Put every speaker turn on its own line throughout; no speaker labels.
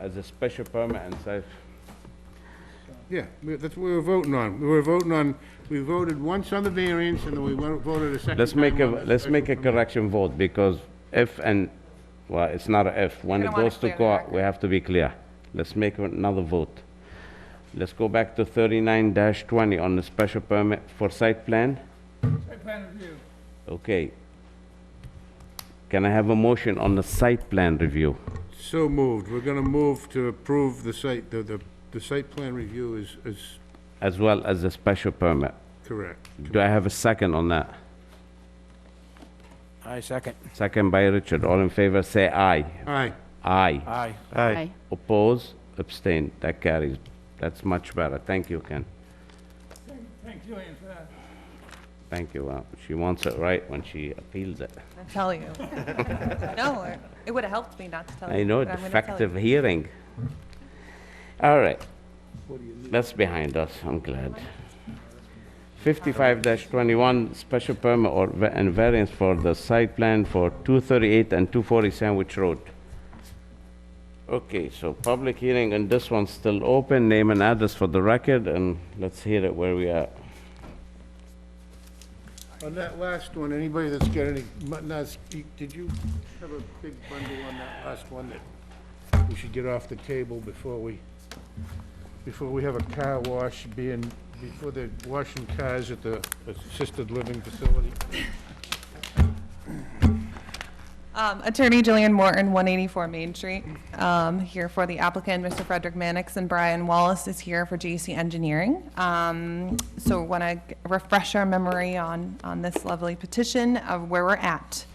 as a special permit and say,
Yeah, we- that's what we were voting on. We were voting on, we voted once on the variance, and then we wo- voted a second time
let's make a,
on the
let's
special
make a
permit.
correction vote, because if and, well, it's not a if, when
You're
it
gonna wanna
goes to
clear the
court,
record.
we have to be clear. Let's make another vote. Let's go back to thirty-nine twenty on the special permit for site plan.
Site plan review.
Okay. Can I have a motion on the site plan review?
So moved. We're gonna move to approve the site, the, the, the site plan review is, is
as well as a special permit.
correct.
Do I have a second on that?
Aye, second.
Second by Richard, all in favor, say aye.
Aye.
Aye.
Aye.
Aye.
Oppose, abstain, that carries. That's much better, thank you, Ken.
Thank- Thank Julian for that.
Thank you, Wow, she wants it right when she appeals it.
I'm telling you. No, it- it would have helped me not to tell you.
I know,
but I'm gonna tell
defective
you.
hearing. All right, that's behind us, I'm glad. 55-21, special permit or, va- and variance for the site plan for 238 and 240 Sandwich Road. Okay, so public hearing and this one's still open, name and address for the record, and let's hear it where we are.
On that last one, anybody that's got any, mu- nuts, y- did you have a big bundle on that last one that we should get off the table before we, before we have a car wash being, before they're washing cars at the assisted living facility?
Um, Attorney Jillian Morton, 184 Main Street, um, here for the applicant, Mr. Frederick Mannix, and Brian Wallace is here for JC Engineering. Um, So want to refresh our memory on, on this lovely petition of where we're at.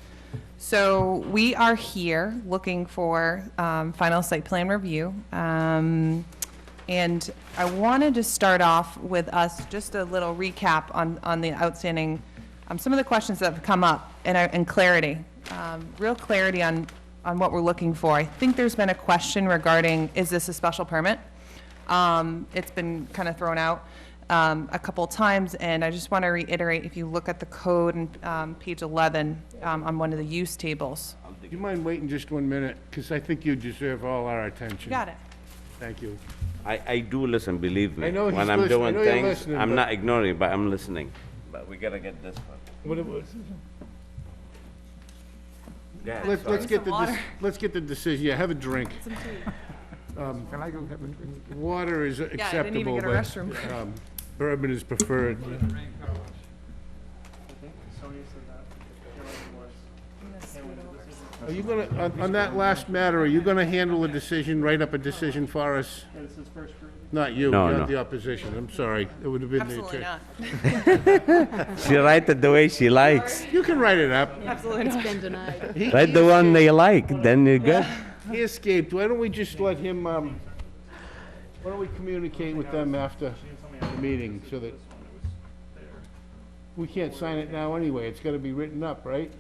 So we are here looking for um, final site plan review. Um, And I wanted to start off with us, just a little recap on, on the outstanding, um, some of the questions that have come up and, I- and clarity, um, real clarity on, on what we're looking for. I think there's been a question regarding, is this a special permit? Um, It's been kind of thrown out um, a couple times, and I just want to reiterate, if you look at the code and um, page 11 um, on one of the use tables.
Do you mind waiting just one minute? Because I think you deserve all our attention.
Got it.
Thank you.
I, I do listen, believe me.
I know he's
When I'm
listen- I
doing
know you're
things,
listening,
I'm
but-
not ignoring, but I'm listening. But we gotta get this one.
What it was-
Yeah,
Let's,
sorry.
let's get the,
Some
dec-
water.
let's get the decision, yeah, have a drink. Um,
Can I go get my drink?
Water is
Yeah, I didn't even
acceptable,
get a
but
restroom.
um, bourbon is preferred. Are you gonna, on, on that last matter, are you gonna handle a decision, write up a decision for us? Not you,
No,
not
no.
the opposition, I'm sorry, it would have been the
Absolutely
attorney.
not.
She write it the way she likes.
You can write it up.
Absolutely not.
been denied.
He-
Write the one they like, then you're good.
He escaped, why don't we just let him, um, why don't we communicate with them after the meeting, so that... We can't sign it now anyway, it's gotta be written up, right?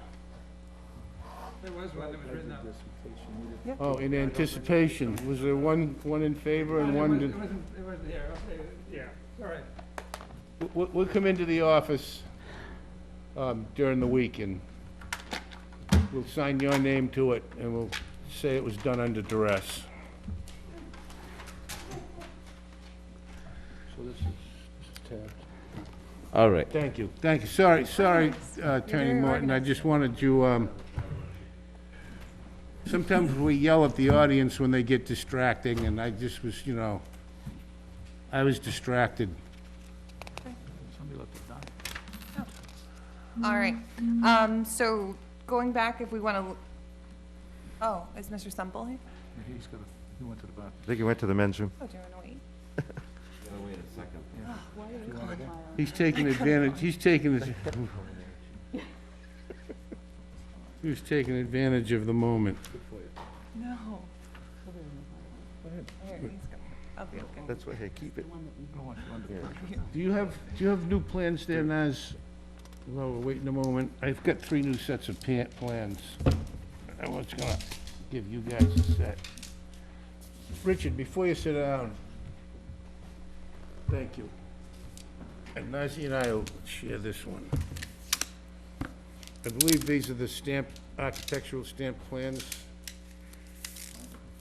There was one that was written up. It
Oh, in anticipation, was there one, one in favor and one,
wasn't, it
did-
wasn't, it wasn't here, okay, yeah, all right.
we- we- we'll come into the office um, during the week and we'll sign your name to it and we'll say it was done under duress. So this is tabbed.
All right.
Thank you, thank you. Sorry, sorry, uh, Attorney Morton, I just wanted you, um, sometimes we yell at the audience when they get distracting, and I just was, you know, I was distracted.
Somebody left it down.
All right, um, so going back, if we want to, oh, is Mr. Semple here?
He's got a, he went to the bathroom.
I think he went to the men's room.
Oh, do you want to wait?
He's taking advantage, he's taking, his- he was taking advantage of the moment.
No. Here, he's go- I'll be okay.
That's why, hey, keep it.
I don't want you under pressure.
Do you have, do you have new plans there, Naz? Well, we're waiting a moment. I've got three new sets of pa- plans. I was gonna give you guys a set. Richard, before you sit down, thank you. And Nazzy and I will share this one. I believe these are the stamped, architectural stamped plans.